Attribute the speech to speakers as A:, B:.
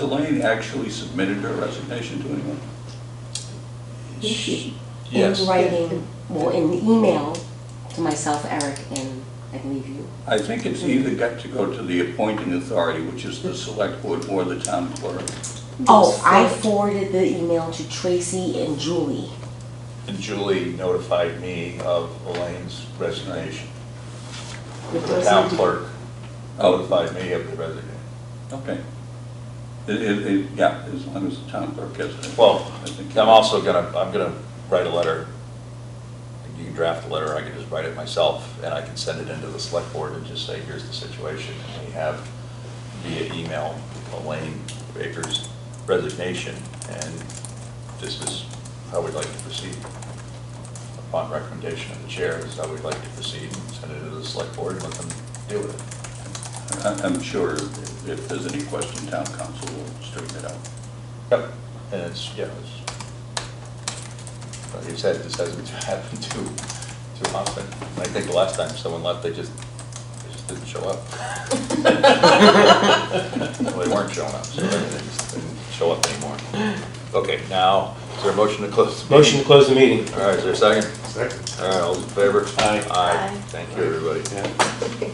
A: Lane actually submitted her resignation to anyone?
B: Yes.
A: Yes.
B: In writing, well, in the email to myself, Eric, and I believe you.
A: I think it's either got to go to the appointing authority, which is the select board or the town clerk.
B: Oh, I forwarded the email to Tracy and Julie.
C: And Julie notified me of Elaine's resignation.
D: It
C: The town
D: doesn't,
C: clerk notified me of the resignation.
A: Okay. It, it, it- yeah, as long as the town clerk has it.
C: Well,
A: I think-
C: I'm also gonna, I'm gonna write a letter. You can draft a letter, I can just write it myself, and I can send it into the select board and just say, here's the situation. And we have via email Elaine Baker's resignation, and this is how we'd like to proceed. Upon recommendation of the chair, this is how we'd like to proceed, and send it to the select board and let them deal with it.
A: I- I'm sure if if there's any question, town council will straighten it out.
C: Yep. And it's, yeah, it's, like you said, this hasn't happened too, too often. And I think the last time someone left, they just, they just didn't show up. Well, they weren't showing up, so they just didn't show up anymore. Okay, now, is there a motion to close? the
E: Motion
C: meeting?
E: to close the meeting.
C: All right, is there a second?
D: Second.
C: All right, all those in favor?
E: Aye.
C: Aye. Thank you, everybody.
E: Yeah.